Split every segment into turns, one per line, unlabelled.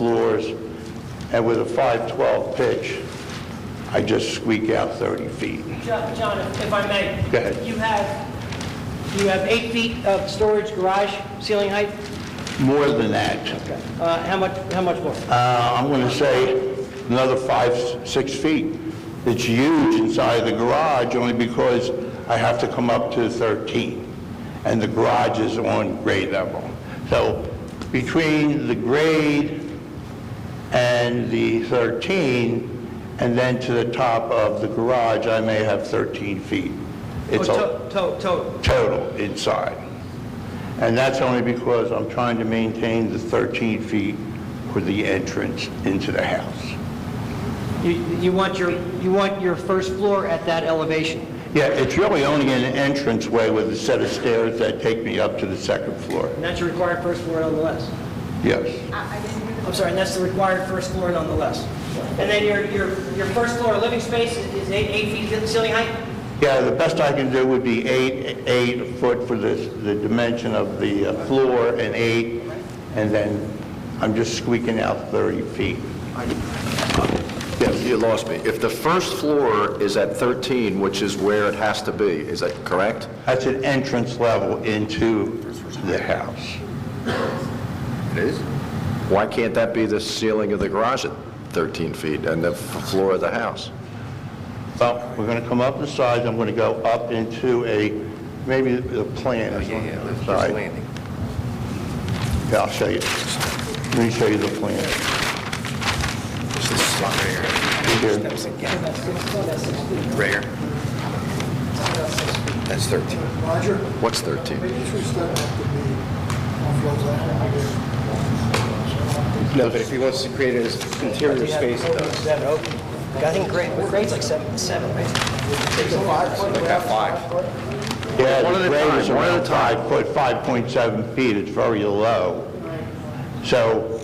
floors, and with a 512 pitch, I just squeak out 30 feet.
Jo- John, if if I may.
Go ahead.
You have, you have eight feet of storage garage ceiling height?
More than that,
Uh, How much, how much more?
uh, I'm going to say another five, six feet. It's huge inside the garage, only because I have to come up to 13, and the garage is on grade level. So between the grade and the 13, and then to the top of the garage, I may have 13 feet. It's a-
Oh, to- to- Total.
total inside. And that's only because I'm trying to maintain the 13 feet for the entrance into the house.
You you want your, you want your first floor at that elevation?
Yeah, it's really only an entranceway with a set of stairs that take me up to the second floor.
And that's your required first floor nonetheless?
Yes.
I'm sorry, and that's the required first floor nonetheless? And then your, your, your first floor living space is eight, eight feet ceiling height?
Yeah, the best I can do would be eight, eight foot for the, the dimension of the uh, floor and eight, and then I'm just squeaking out 30 feet.
Yes, you lost me. If the first floor is at 13, which is where it has to be, is that correct?
That's an entrance level into the house.
It is. Why can't that be the ceiling of the garage at 13 feet and the f- floor of the house?
Well, we're going to come up the sides, I'm going to go up into a, maybe the plan
Oh,
is on the other side. Yeah, I'll show you. Let me show you the plan. Right here.
That's 13.
Roger,
What's 13?
maybe three steps have to be off those angles.
No, but if he wants to create it as interior space, it does.
Seven, okay. I think grade, grade's like seven, seven, right?
Yeah,
One at
the
a
grade is
time, one at a
around
time.
five foot, 5.7 feet, it's very low. So,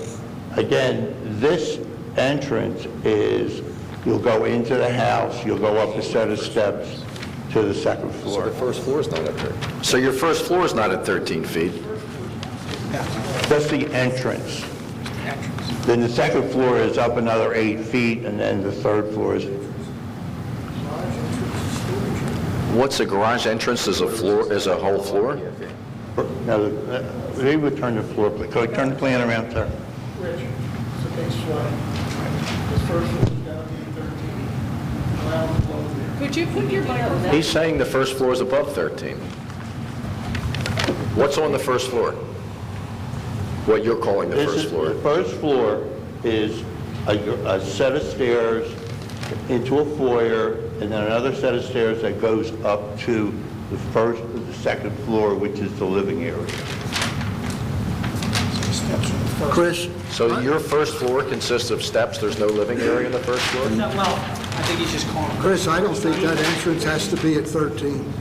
again, this entrance is, you'll go into the house, you'll go up a set of steps to the second floor.
First floor is not up there.
So your first floor is not at 13 feet?
That's the entrance. Then the second floor is up another eight feet, and then the third floor is,
What's a garage entrance is a floor, is a whole floor?
now, uh, they would turn the floor, pla- could I turn the plan around, sir?
Rich, it's a big swing. The first one's got to be 13. Allow the flow there.
Could you put your microphone
He's saying the first floor is above 13. What's on the first floor? What you're calling the
This
first
is, the
floor?
first floor is a a set of stairs into a foyer, and then another set of stairs that goes up to the first, the second floor, which is the living area.
Chris? So your first floor consists of steps, there's no living area on the first floor?
No, well, I think he's just calling.
Chris, I don't think that entrance has to be at 13.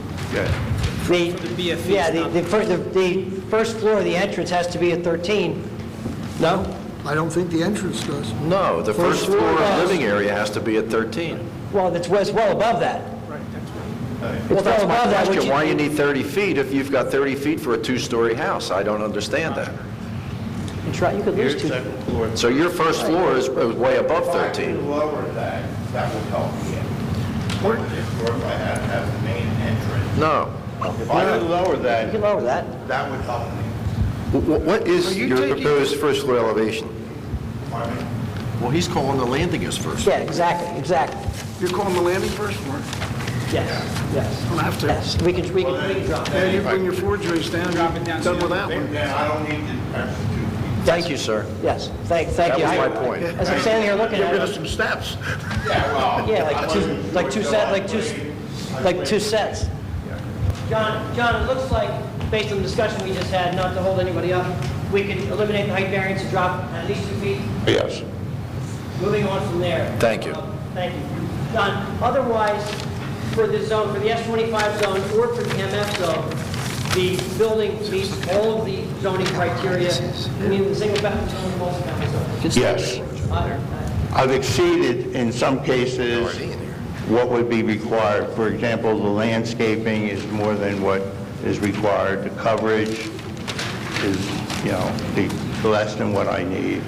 The, yeah, the, the first, the- the first floor of the entrance has to be at 13, no?
I don't think the entrance does.
No, the
First
first floor
floor.
of living area has to be at 13.
Well, that's, it's well above that.
Well,
It's Oh, well
that's my
above that, which
question, why you
you,
need 30 feet if you've got 30 feet for a two-story house? I don't understand that.
it's right, you could lose two.
floor.
So your first floor is is way above 13.
lower that, that will help Or if I had to have the main entrance.
No.
If I would lower
You could
that,
lower that.
that would help me.
What is
your proposed
first floor elevation?
Pardon me?
Well, he's calling the landing as first.
Yeah, exactly, exactly.
You're calling the landing first floor?
Yes, yes.
Don't have to.
Yes, we can, we can, we can drop that.
Then you bring your floor joists down, you're done with that one.
Then I don't need to
Thank you, sir.
Yes, thank, thank
That
you.
was my
I-
point.
As I'm standing here looking at it,
some steps.
yeah, like two, like two set, like two, s- like two sets. John, John, it looks like, based on the discussion we just had, not to hold anybody up, we could eliminate the height variance and drop at least two feet.
Yes.
Moving on from there. Um,
Thank you.
Thank you. John, otherwise, for the zone, for the S-25 zone or for the MF zone, the building meets all of the zoning criteria, meaning the single family zone, and multi-family zone.
Yes.
Uh,
I've exceeded, in some cases, what would be required. For example, the landscaping is more than what is required. The coverage is, you know, the- less than what I need.